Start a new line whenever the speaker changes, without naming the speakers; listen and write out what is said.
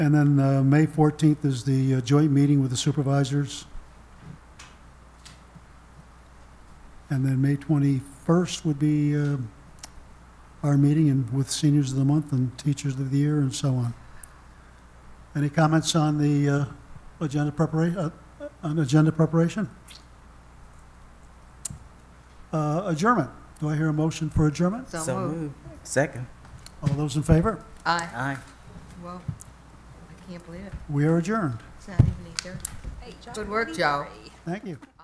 And then uh, May 14th is the uh, joint meeting with the supervisors. And then May 21st would be uh, our meeting and with seniors of the month and teachers of the year and so on. Any comments on the uh, agenda preparation, on agenda preparation? Uh, Adjournment. Do I hear a motion for adjournment?
So moved. Second.
All those in favor?
Aye.
Aye.
Well, I can't believe it.
We are adjourned.
It's not even eight thirty. Good work, Joe.
Thank you.